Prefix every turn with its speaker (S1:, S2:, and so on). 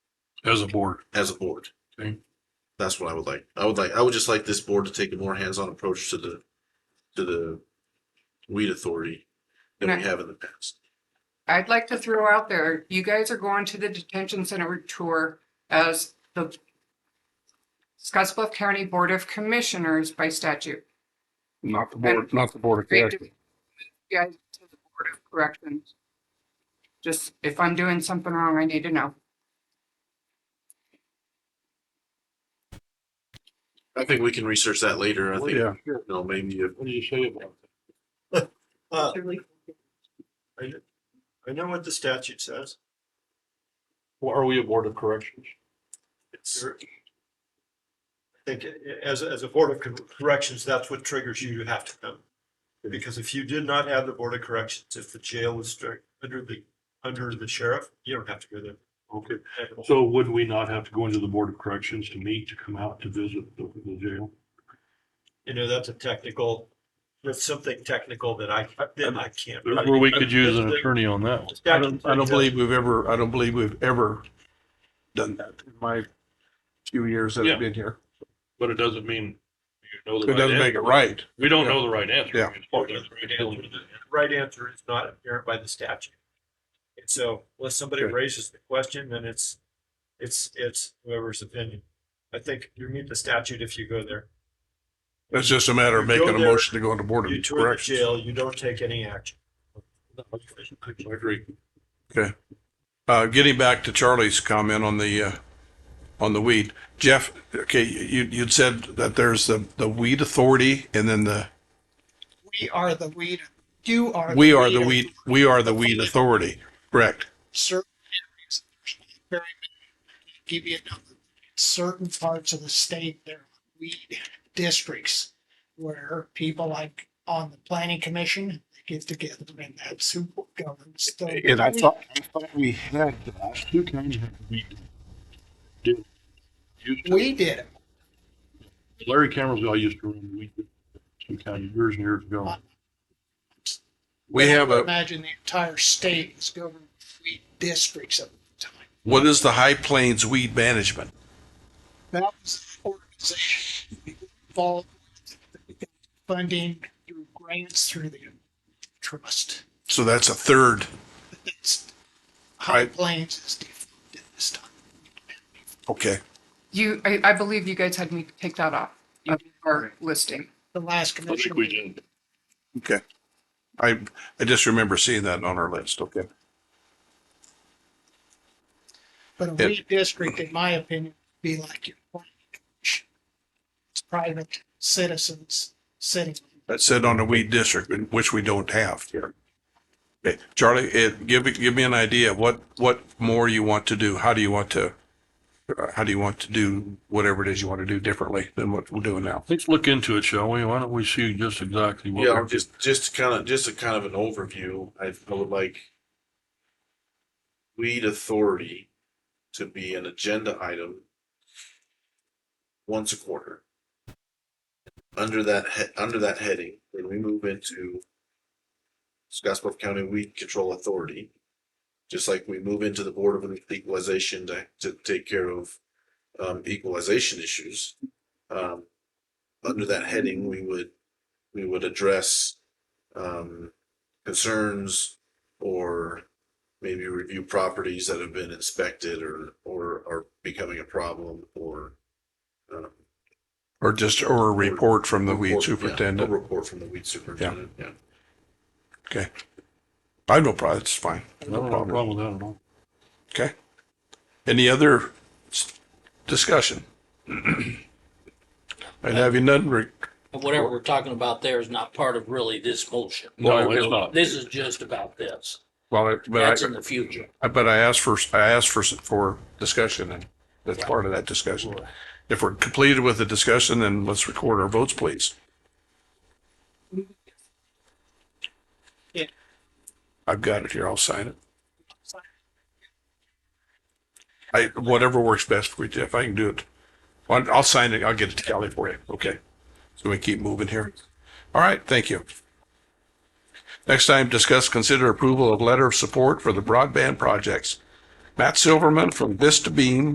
S1: as a board.
S2: as a board.
S1: Okay.
S2: That's what I would like. I would like, I would just like this board to take a more hands-on approach to the, to the weed authority than we
S3: Okay.
S2: have in the past.
S3: I'd like to throw out there, you guys are going to the detention center tour as the Scottsbluff County Board of Commissioners by statute.
S1: Not the board, not the board of
S3: Great to-
S1: directors.
S3: You Guys to the Board of Corrections. Just if I'm doing something wrong, I need to know.
S2: I think we can research that later. I think, you
S1: Yeah, sure.
S2: know, maybe if
S1: What do you say about that?
S4: Uh, I, I know what the statute says.
S1: Well, Are we a board of corrections?
S2: it's,
S4: You're- I think a- as, as a board of Cor- corrections, that's what triggers you to have to come. Because if you did not have the board of corrections, if the jail was strict under the, under the sheriff, you don't have to go there.
S1: Okay, so would we not have to go into the board of corrections to meet, to come out to visit the, the jail?
S4: You know, that's a technical, that's something technical that I, that I can't.
S1: Where we could use an attorney on that. one.
S5: I don't, I don't believe we've ever, I don't believe we've ever done that in my few years that
S1: Yeah.
S5: I've been here.
S1: But it doesn't mean you know the
S5: It doesn't
S1: right
S5: make it
S1: answer.
S5: right.
S1: We don't know the right answer.
S5: Yeah.
S4: right answer is not apparent by the statute. And so unless somebody
S5: Good.
S4: raises the question, then it's, it's, it's whoever's opinion. I think you meet the statute if you go there.
S5: It's just a matter of
S4: You go
S5: making a
S4: there,
S5: motion to go into board
S4: You
S5: of
S4: tour the
S5: corrections.
S4: jail, you don't take any action.
S1: I agree.
S5: Uh, getting back to Charlie's comment on the, uh, on the weed, Jeff, okay, you, you'd said that there's the, the weed authority and then the,
S6: We are the weed. You are.
S5: we are the weed, we are the weed authority, correct?
S6: Certain areas, there's not very many. Give you another. Certain parts of the state, there are weed districts where people like on the planning commission get together and that's who governs. the-
S7: And I thought, I thought we had that. Who can have we
S1: Did- used to-
S6: We did it.
S1: Larry Cameron's used to run, we, some kind of years and years ago.
S5: We have a,
S6: Imagine the entire state is governed by weed districts at the time.
S5: what is the High Plains Weed Management?
S6: That was an organization involved with funding through grants through the trust.
S5: So that's a third.
S6: But that's High
S5: Right.
S6: Plains is defunct at this time.
S5: Okay.
S3: You, I, I believe you guys had me take that off of our listing.
S6: The last
S1: I think
S6: commission.
S1: we did.
S5: Okay. I, I just remember seeing that on our list. Okay.
S6: But a
S5: Yeah.
S6: weed district, in my opinion, would be like your planning commission. It's private citizens sitting.
S5: That said on the weed district, which we don't have here. Okay. Charlie, it, give, me- give me an idea of what, what more you want to do. How do you want to, uh, how do you want to do whatever it is you want to do differently than what we're doing now?
S1: Let's look into it, shall we? Why don't we see just exactly what?
S2: yeah, just, just kind of, just a kind of an overview. I, I would like weed authority to be an agenda item once a quarter. Under that, he- under that heading, then we move into Scottsbluff County Weed Control Authority. Just like we move into the Board of Equalization to, to take care of, um, equalization issues. Um, under that heading, we would, we would address, um, concerns or maybe review properties that have been inspected or, or are becoming a problem or, um,
S5: Or just, or a report from the weed
S2: report- yeah, A
S5: superintendent?
S2: report from the weed superintendent, yeah.
S5: I have no problem. It's fine.
S1: I don't have a problem with that at all.
S5: Okay. Any other s- discussion? And having none, Rick,
S8: Whatever we're talking about there is not part of really this motion.
S1: No, it's not.
S8: This is just about this.
S5: well, I- but I.
S8: That's in the future.
S5: I- But I asked for, I asked for, for discussion and that's part of that discussion. If we're completed with the discussion, then let's record our votes, please.
S6: Yeah.
S5: I've got it here. I'll sign it. I, whatever works best for you, Jeff. I can do it. I'll, I'll sign it. I'll get it to Kelly for you. Okay. So we keep moving here. All right. Thank you. Next time, discuss, consider approval of letter of support for the broadband projects. Matt Silverman from Vista Beam